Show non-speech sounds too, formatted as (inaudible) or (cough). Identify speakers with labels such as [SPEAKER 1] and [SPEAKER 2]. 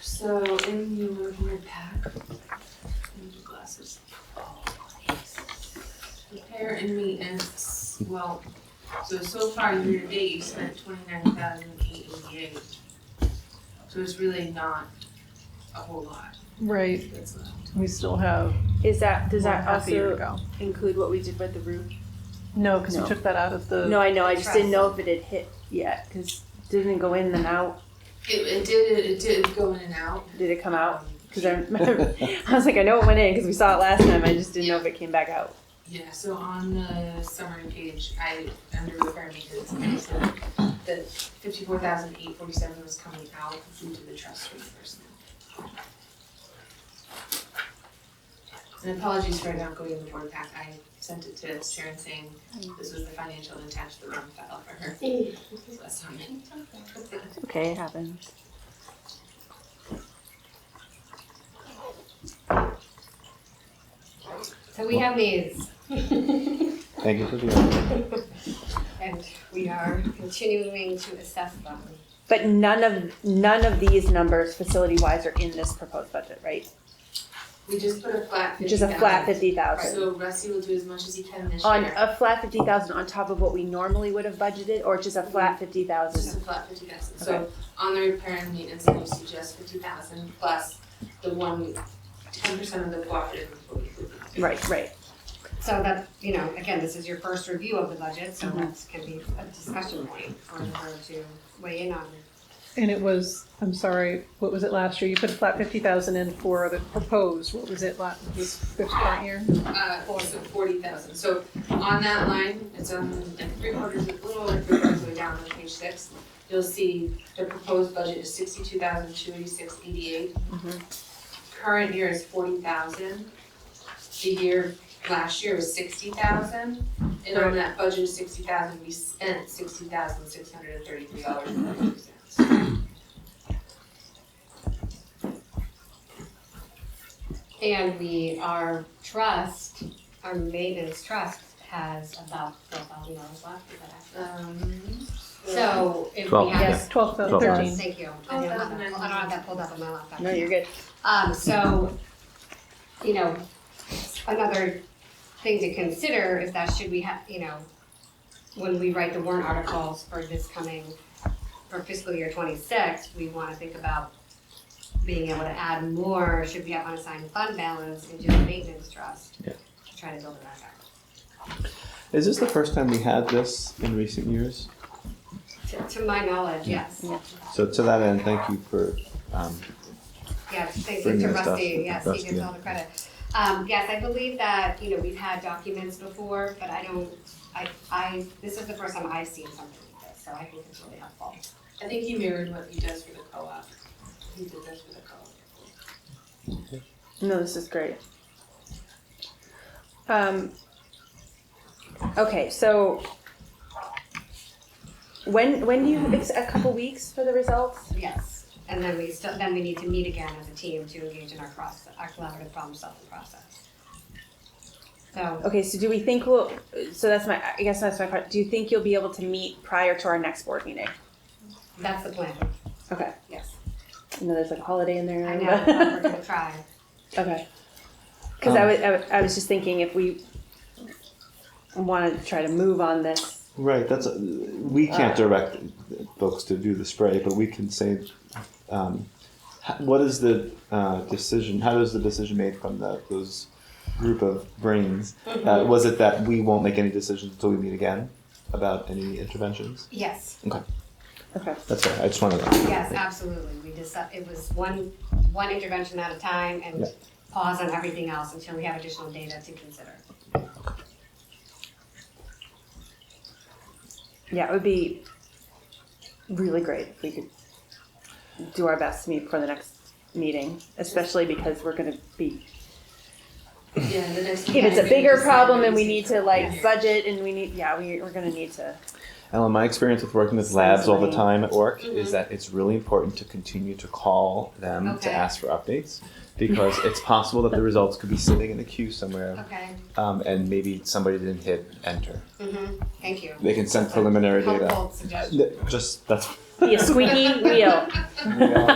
[SPEAKER 1] So in your little pack, in your glasses. Prepare and maintenance, well, so so far year to date, you spent twenty-nine thousand eight eighty-eight. So it's really not a whole lot
[SPEAKER 2] Right,
[SPEAKER 1] that's left.
[SPEAKER 2] we still have
[SPEAKER 3] Is that, does
[SPEAKER 2] one
[SPEAKER 3] that
[SPEAKER 2] half a year to
[SPEAKER 3] also
[SPEAKER 2] go.
[SPEAKER 3] include what we did with the roof?
[SPEAKER 2] No, because we
[SPEAKER 3] No.
[SPEAKER 2] took that out of the,
[SPEAKER 3] No, I know, I just didn't know if it had hit yet, cause it didn't go in and out,
[SPEAKER 1] It, it did, it did go in and out.
[SPEAKER 3] did it come out? (laughs) Cause I remember, I was like, I know it went in, cause we saw it last time, I just didn't know if it came back out.
[SPEAKER 1] Yeah, so on the summary page, I, under repair and maintenance, I said that fifty-four thousand eight forty-seven was coming out due to the trust reimbursement. And apologies for not going in the board pack, I sent it to Sharon saying this was the financial and attached the wrong file for
[SPEAKER 3] (laughs)
[SPEAKER 1] her. So that's on me.
[SPEAKER 3] Okay, it happens.
[SPEAKER 4] So we have these,
[SPEAKER 5] Thank you, Sophia.
[SPEAKER 4] and we are continuing to assess them.
[SPEAKER 3] But none of, none of these numbers facility-wise are in this proposed budget, right?
[SPEAKER 1] We just put a flat fifty thousand.
[SPEAKER 3] Just a flat fifty thousand.
[SPEAKER 1] So Rusty will do as much as he can this year.
[SPEAKER 3] On a flat fifty thousand on top of what we normally would have budgeted, or just a flat fifty
[SPEAKER 1] Just
[SPEAKER 3] thousand?
[SPEAKER 1] a flat fifty thousand, so on the repair and maintenance, you suggest fifty thousand plus the one, ten percent of the cooperative employee.
[SPEAKER 3] Right, right.
[SPEAKER 4] So that, you know, again, this is your first review of the budget, so
[SPEAKER 5] Mm-hmm.
[SPEAKER 4] that can be a discussion point for her to weigh in on.
[SPEAKER 2] and it was, I'm sorry, what was it last year? You put a flat fifty thousand in for the proposed, what was it last, this this current year?
[SPEAKER 1] Uh, for forty thousand, so on that line, it's on like three quarters, a little over three quarters of the way down on page six. You'll see the proposed budget is sixty-two thousand two eighty-six eighty-eight. Current year is forty thousand. The year, last year was sixty thousand, and on that budget of sixty thousand, we spent sixty thousand six hundred and thirty-three dollars and ninety-two cents.
[SPEAKER 4] And we, our trust, our maintenance trust has about twelve thousand dollars left, is that accurate?
[SPEAKER 1] Um.
[SPEAKER 4] So if we
[SPEAKER 5] Twelve,
[SPEAKER 4] have,
[SPEAKER 2] Twelve thou-
[SPEAKER 5] Twelve
[SPEAKER 2] thirteen.
[SPEAKER 5] thousand.
[SPEAKER 4] thank you, I don't have that, I don't have that pulled up on my laptop.
[SPEAKER 3] No, you're good.
[SPEAKER 4] Um, so, you know, another thing to consider is that should we have, you know, when we write the warrant articles for this coming, for fiscal year twenty-six, we wanna think about being able to add more, should we have unassigned fund balance into the maintenance trust?
[SPEAKER 5] Yeah.
[SPEAKER 4] To try to build it back up.
[SPEAKER 5] Is this the first time we had this in recent years?
[SPEAKER 4] To, to my knowledge, yes.
[SPEAKER 5] So to that end, thank you for, um,
[SPEAKER 4] Yeah, thank you
[SPEAKER 5] Bring
[SPEAKER 4] to
[SPEAKER 5] that stuff
[SPEAKER 4] Rusty, yes, he
[SPEAKER 5] Rusty,
[SPEAKER 4] gets
[SPEAKER 5] yeah.
[SPEAKER 4] all the credit. Um, yes, I believe that, you know, we've had documents before, but I don't, I, I, this is the first time I've seen something like this, so I think it's really helpful.
[SPEAKER 1] I think he mirrored what he does for the co-op. He did this for the co-op.
[SPEAKER 3] No, this is great. Um, okay, so when when do you it's a couple weeks for the results?
[SPEAKER 4] Yes, and then we still, then we need to meet again as a team to engage in our cross, our collaborative problem solving process. So,
[SPEAKER 3] Okay, so do we think we'll? So that's my I guess that's my part. Do you think you'll be able to meet prior to our next board meeting?
[SPEAKER 4] that's the plan,
[SPEAKER 3] Okay,
[SPEAKER 4] yes.
[SPEAKER 3] I know there's like a holiday in there.
[SPEAKER 4] I know,
[SPEAKER 3] but-
[SPEAKER 4] we're gonna try.
[SPEAKER 3] (laughs) Okay. Because I,
[SPEAKER 5] Um,
[SPEAKER 3] was, I was I was just thinking if we want to try to move on this.
[SPEAKER 5] right, that's, we can't direct folks to do the spray, but we can say, um, h- what is the, uh, decision, how is the decision made from the, those group of (laughs) brains? Uh, was it that we won't make any decisions until we meet again about any interventions?
[SPEAKER 4] Yes,
[SPEAKER 3] Okay.
[SPEAKER 5] That's right, I just wanted to.
[SPEAKER 4] yes, absolutely, we just, it was one, one intervention at a time and
[SPEAKER 5] Yeah.
[SPEAKER 4] pause on everything else until we have additional data to consider.
[SPEAKER 3] Yeah, it would be really great if we could do our best to meet for the next meeting, especially because we're going to be.
[SPEAKER 1] Yeah, the next.
[SPEAKER 3] If it's a bigger problem and we need to like budget and we need, yeah, we, we're going to need to.
[SPEAKER 5] Ellen, my experience with working with labs all the
[SPEAKER 3] Sensory.
[SPEAKER 5] time at work
[SPEAKER 1] Mhm.
[SPEAKER 5] is that it's really important to continue to call them
[SPEAKER 4] Okay.
[SPEAKER 5] to ask for updates because it's possible that the results could be sitting in the queue somewhere
[SPEAKER 4] Okay,
[SPEAKER 5] um, and maybe somebody didn't hit enter.
[SPEAKER 4] mm-hmm, thank you.
[SPEAKER 5] They can send preliminary data.
[SPEAKER 4] Helpful suggestion.
[SPEAKER 5] Th- Just that's.
[SPEAKER 3] Be a squeaky wheel.
[SPEAKER 5] Yeah.